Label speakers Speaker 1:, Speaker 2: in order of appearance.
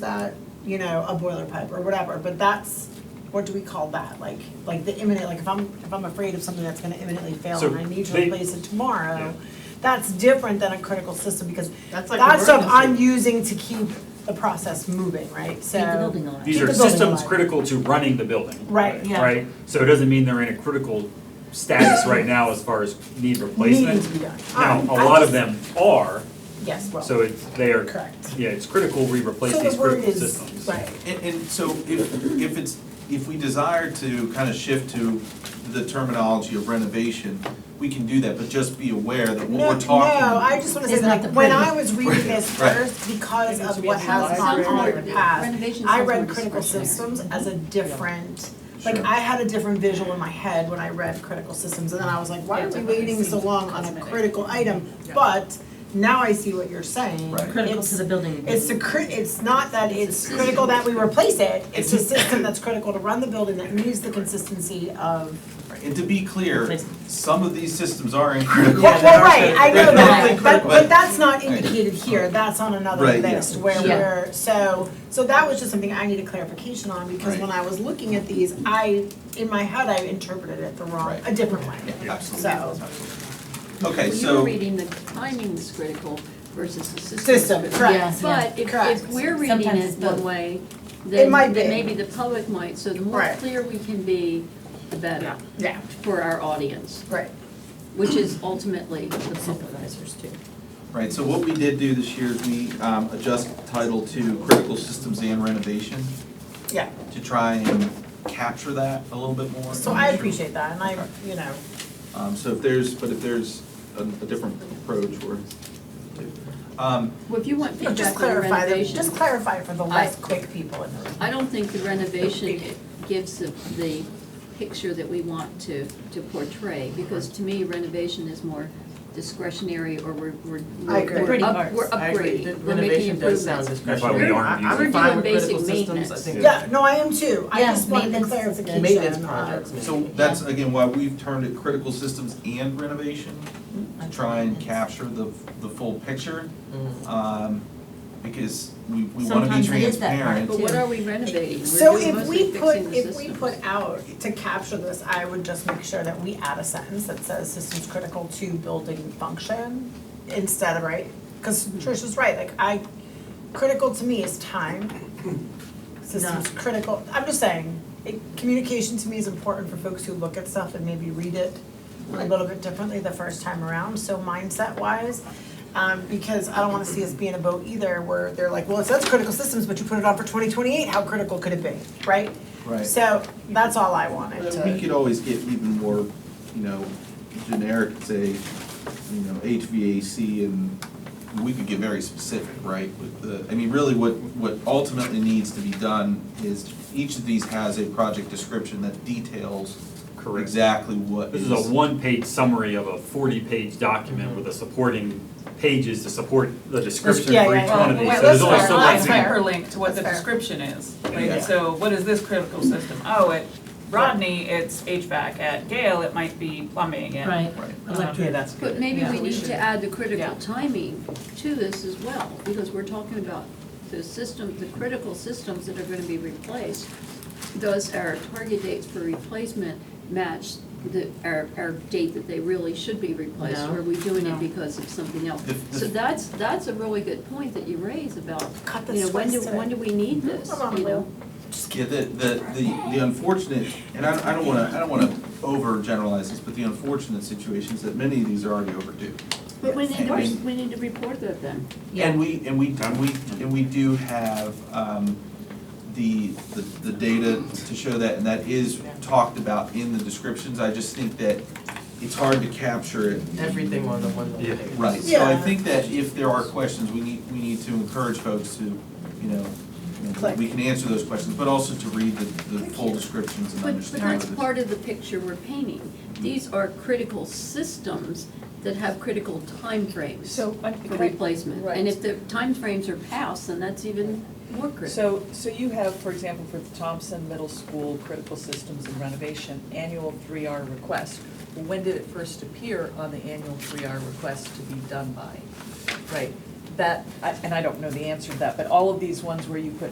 Speaker 1: that, you know, a boiler pipe or whatever, but that's, what do we call that? Like, like the imminent, like if I'm, if I'm afraid of something that's gonna imminently fail
Speaker 2: So
Speaker 1: and I need to
Speaker 2: they-
Speaker 1: replace it
Speaker 2: Yeah.
Speaker 1: tomorrow, that's different than a critical system because
Speaker 3: That's like
Speaker 1: that stuff I'm
Speaker 3: emergency.
Speaker 1: using to keep the process moving, right? So.
Speaker 4: Keep the building alive.
Speaker 2: These
Speaker 1: Keep
Speaker 2: are
Speaker 1: the building
Speaker 2: systems
Speaker 1: alive.
Speaker 2: critical to running the building.
Speaker 1: Right, yeah.
Speaker 2: Right? So it doesn't mean they're in a critical status right now as far as need
Speaker 1: Needing to
Speaker 2: replacement.
Speaker 1: be done.
Speaker 2: Now,
Speaker 1: Um,
Speaker 2: a
Speaker 1: I
Speaker 2: lot of
Speaker 1: just-
Speaker 2: them are,
Speaker 1: Yes, well.
Speaker 2: so it's, they are,
Speaker 1: Correct.
Speaker 2: yeah, it's critical we replace
Speaker 1: So the
Speaker 2: these
Speaker 1: word
Speaker 2: critical
Speaker 1: is-
Speaker 2: systems.
Speaker 1: Right.
Speaker 5: And, and so if, if it's, if we desire to kind of shift to the terminology of renovation, we can do that, but just be aware that
Speaker 1: No,
Speaker 5: what we're talking.
Speaker 1: No, I just wanna say,
Speaker 4: It's not
Speaker 1: like,
Speaker 4: the
Speaker 1: when
Speaker 4: pretty.
Speaker 1: I was reading this
Speaker 5: Right.
Speaker 1: first, because
Speaker 3: It needs
Speaker 1: of
Speaker 3: to be
Speaker 1: what
Speaker 3: in the
Speaker 1: has gone
Speaker 3: library.
Speaker 1: on in the past,
Speaker 4: Renovation
Speaker 1: I
Speaker 4: sounds more
Speaker 1: read critical
Speaker 4: discretionary.
Speaker 1: systems as a different, like,
Speaker 5: Sure.
Speaker 1: I had a different visual in my head when I read critical systems, and then I was like, why
Speaker 3: Yeah,
Speaker 1: are we
Speaker 3: definitely
Speaker 1: waiting so
Speaker 3: seems
Speaker 1: long on a
Speaker 3: cosmetic.
Speaker 1: critical item?
Speaker 3: Yeah.
Speaker 1: But now I see what you're saying.
Speaker 5: Right.
Speaker 4: Critical
Speaker 1: It's-
Speaker 4: to the building.
Speaker 1: It's the cri- it's not that it's critical that we replace it, it's a system that's critical to run the building that needs the consistency of
Speaker 5: And to be clear,
Speaker 4: Please.
Speaker 5: some of these systems are in critical.
Speaker 1: Yeah, well, right, I know
Speaker 5: They're definitely
Speaker 1: that, but,
Speaker 5: critical.
Speaker 1: but that's not indicated here, that's on another
Speaker 5: Right, yeah.
Speaker 1: list where
Speaker 4: Yeah.
Speaker 1: we're, so, so that was just something I needed clarification on, because
Speaker 5: Right.
Speaker 1: when I was looking at these, I, in my head, I interpreted it the wrong,
Speaker 5: Right.
Speaker 1: a different way.
Speaker 5: Yeah, Absolutely.
Speaker 1: So-
Speaker 5: absolutely. Okay,
Speaker 6: Well, you were
Speaker 5: so,
Speaker 6: reading the timing is critical versus the system. is
Speaker 1: System,
Speaker 6: critical.
Speaker 1: correct.
Speaker 6: But if,
Speaker 1: Correct.
Speaker 6: if we're reading
Speaker 4: Sometimes it's
Speaker 6: it
Speaker 4: both.
Speaker 6: one way, then,
Speaker 1: might
Speaker 6: then
Speaker 1: be.
Speaker 6: maybe the public might, so the more
Speaker 1: Right.
Speaker 6: clear we can be, the better
Speaker 1: Yeah,
Speaker 6: for our audience,
Speaker 1: right.
Speaker 6: which is ultimately the supervisors too.
Speaker 5: right, so what we did do this year is we um, adjust title to critical systems and renovation.
Speaker 1: Yeah.
Speaker 5: To try and capture that a little bit more.
Speaker 1: So I appreciate that, and I,
Speaker 5: Okay.
Speaker 1: you know,
Speaker 5: Um, so if there's, but if there's a, a different approach or. Um,
Speaker 6: Well, if you want
Speaker 1: just
Speaker 6: feedback on the
Speaker 1: clarify, the-
Speaker 6: renovation.
Speaker 1: just clarify for the
Speaker 6: I-
Speaker 1: less quick people in the room.
Speaker 6: I don't think the renovation gives the, the picture that we want to, to portray, because to me renovation is more discretionary, or we're, we're.
Speaker 1: I agree.
Speaker 6: we're
Speaker 4: Pretty
Speaker 6: up-
Speaker 4: parts.
Speaker 6: We're
Speaker 3: I agree, the
Speaker 6: upgrading, we're making
Speaker 3: renovation does sound
Speaker 2: That's
Speaker 6: improvements.
Speaker 2: why we
Speaker 3: discretionary.
Speaker 2: aren't
Speaker 3: I-
Speaker 2: using
Speaker 3: I'm
Speaker 6: it.
Speaker 3: fine
Speaker 6: We're
Speaker 3: with
Speaker 6: doing
Speaker 3: critical
Speaker 6: basic
Speaker 3: systems, I
Speaker 6: maintenance.
Speaker 3: think.
Speaker 1: Yeah, no, I am too, I
Speaker 4: Yeah,
Speaker 1: just wanted the
Speaker 4: maintenance-
Speaker 1: clarification.
Speaker 3: Maintenance
Speaker 1: uh,
Speaker 3: projects, maybe.
Speaker 5: so that's again why we've turned it critical systems and renovation to try and capture the, the full picture.
Speaker 3: Mhm.
Speaker 5: Um, because we, we wanna be
Speaker 4: Sometimes it is that part,
Speaker 5: transparent.
Speaker 6: But what are we renovating? We're
Speaker 1: So
Speaker 6: doing
Speaker 1: if
Speaker 6: mostly
Speaker 1: we put,
Speaker 6: fixing the
Speaker 1: if we
Speaker 6: systems.
Speaker 1: put out, to capture this, I would just make sure that we add a sentence that says systems critical to building function instead of, right? Cause Trisha's right, like I, critical to me is time. Systems critical, I'm just saying, it, communication to me is important for folks who look at stuff and maybe read it a little bit differently the first time around, so mindset wise. Um, because I don't wanna see us be in a boat either where they're like, well, it says critical systems, but you put it on for twenty twenty-eight, how critical could it be, right?
Speaker 5: Right.
Speaker 1: So that's all I wanted
Speaker 5: But We
Speaker 1: to,
Speaker 5: could always get even more, you know, generic, and say, you know, HVAC and we could get very specific, right? With the, I mean, really what, what ultimately needs to be done is each of these has a project description that details
Speaker 2: Correct.
Speaker 5: exactly what
Speaker 2: This
Speaker 5: is.
Speaker 2: is a one-page summary of a forty-page
Speaker 1: Mm-hmm.
Speaker 2: document with the supporting pages to support the description
Speaker 1: yeah,
Speaker 2: for
Speaker 1: yeah,
Speaker 2: each
Speaker 1: yeah.
Speaker 2: one of
Speaker 1: Well,
Speaker 2: these, so
Speaker 1: let's
Speaker 2: there's only
Speaker 1: start
Speaker 2: so
Speaker 1: with
Speaker 2: much.
Speaker 1: that.
Speaker 2: you can-
Speaker 7: hyperlink to what the
Speaker 1: That's fair.
Speaker 7: description is.
Speaker 5: Yeah.
Speaker 7: Like, so what is this critical system? Oh, at Rodney, it's HVAC. At Gale, it might be plumbing and.
Speaker 4: Right.
Speaker 5: Right.
Speaker 7: um,
Speaker 4: Electric.
Speaker 3: Yeah, that's good.
Speaker 6: But maybe
Speaker 7: Yeah,
Speaker 6: we
Speaker 7: we
Speaker 6: need
Speaker 7: should.
Speaker 6: to add the critical
Speaker 7: Yeah.
Speaker 6: timing to this as well, because we're talking about the system, the critical systems that are gonna be replaced. Does our target dates for replacement match the, our, our date that they really should be replaced?
Speaker 4: No.
Speaker 6: Or are we doing
Speaker 4: No.
Speaker 6: it because of something else?
Speaker 5: The- the-
Speaker 6: So that's, that's a really good point that you raise about,
Speaker 1: cut
Speaker 6: you
Speaker 1: the
Speaker 6: know, when
Speaker 1: slice
Speaker 6: do,
Speaker 1: today.
Speaker 6: when do we need this,
Speaker 1: Come on,
Speaker 6: you know?
Speaker 1: Lou.
Speaker 5: Yeah, the, the, the the unfortunate, and I, I don't wanna, I don't wanna overgeneralize this, but the unfortunate situation is that many of these are already overdue.
Speaker 6: But we need to, re-
Speaker 5: Yes.
Speaker 6: we need to report that then.
Speaker 5: And we, and we, and we, and we do have, um, the, the, the data to show that, and that is talked about in the descriptions, I just think that it's hard to capture it.
Speaker 3: Everything on the one
Speaker 2: Yeah.
Speaker 3: little page.
Speaker 5: Right, so I
Speaker 1: Yeah.
Speaker 5: think that if there are questions, we need, we need to encourage folks to, you know, you know, we can answer those questions, but also to read the, the full descriptions and
Speaker 6: But, but
Speaker 5: understand.
Speaker 6: that's
Speaker 5: what it's-
Speaker 6: part of the picture we're painting. These are critical systems that have critical timeframes
Speaker 8: So, I-
Speaker 6: for replacement.
Speaker 8: Right.
Speaker 6: And if the timeframes are passed, then that's even more critical.
Speaker 8: so, so you have, for example, for the Thompson Middle School Critical Systems and Renovation, annual three R request. When did it first appear on the annual three R request to be done by? Right, that, I- and I don't know the answer to that, but all of these ones where you put